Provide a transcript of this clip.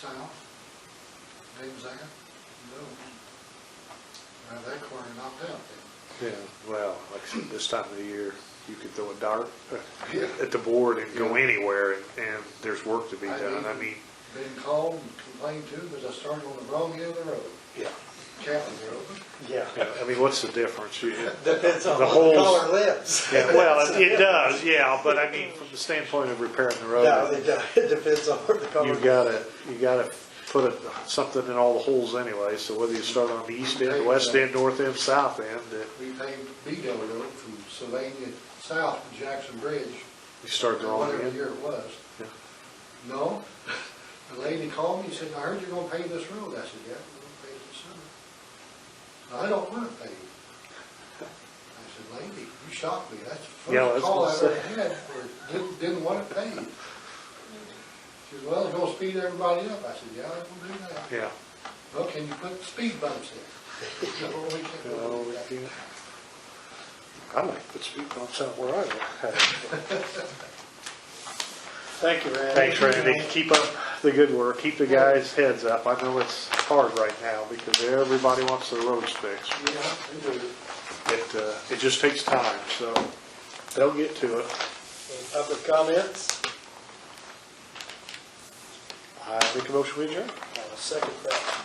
south, Dave Zan, no. Now, that corner knocked out then. Yeah, well, like I said, this time of the year, you could throw a dart Yeah. at the board and go Yeah. anywhere, and, and there's work to be I done. I did. mean, Been called and complained to, because I started on the wrong end of the road, yeah, Captain Road. Yeah. yeah, I mean, what's the difference? You- Depends on The who the holes- caller lives. Yeah, well, it- it does, yeah, but I mean, from the standpoint of repairing the No, road, they don't. it depends on where the caller. you gotta, you gotta put a- something in all the holes anyway, so whether you start on the east end, the west end, north end, south end, that We paved Beadle Road from Sylvania South to Jackson Bridge, you start the wrong whatever end. year it was. Yeah. No, the lady called me, and said, I heard you're gonna pave this road. I said, yeah, we're gonna pave it this summer. I don't wanna pave. I said, lady, you shocked me. That's the Yeah, I was first call I gonna ever had for, didn't, didn't wanna pave. She said, well, it's gonna speed everybody up. I said, yeah, I'm gonna do that. Yeah. Well, can you put speed bumps in? No, we can't No, do we that. can't. I like to put speed bumps out where I live. Thank you, Randy. Thanks, Randy. Keep up the good work. Keep the guys' heads up. I know it's hard right now because everybody wants their roads fixed. Yeah, we do. It, uh, it just takes time, so they'll get to it. Any Public comments? I make a motion we adjourn. Uh, Second that.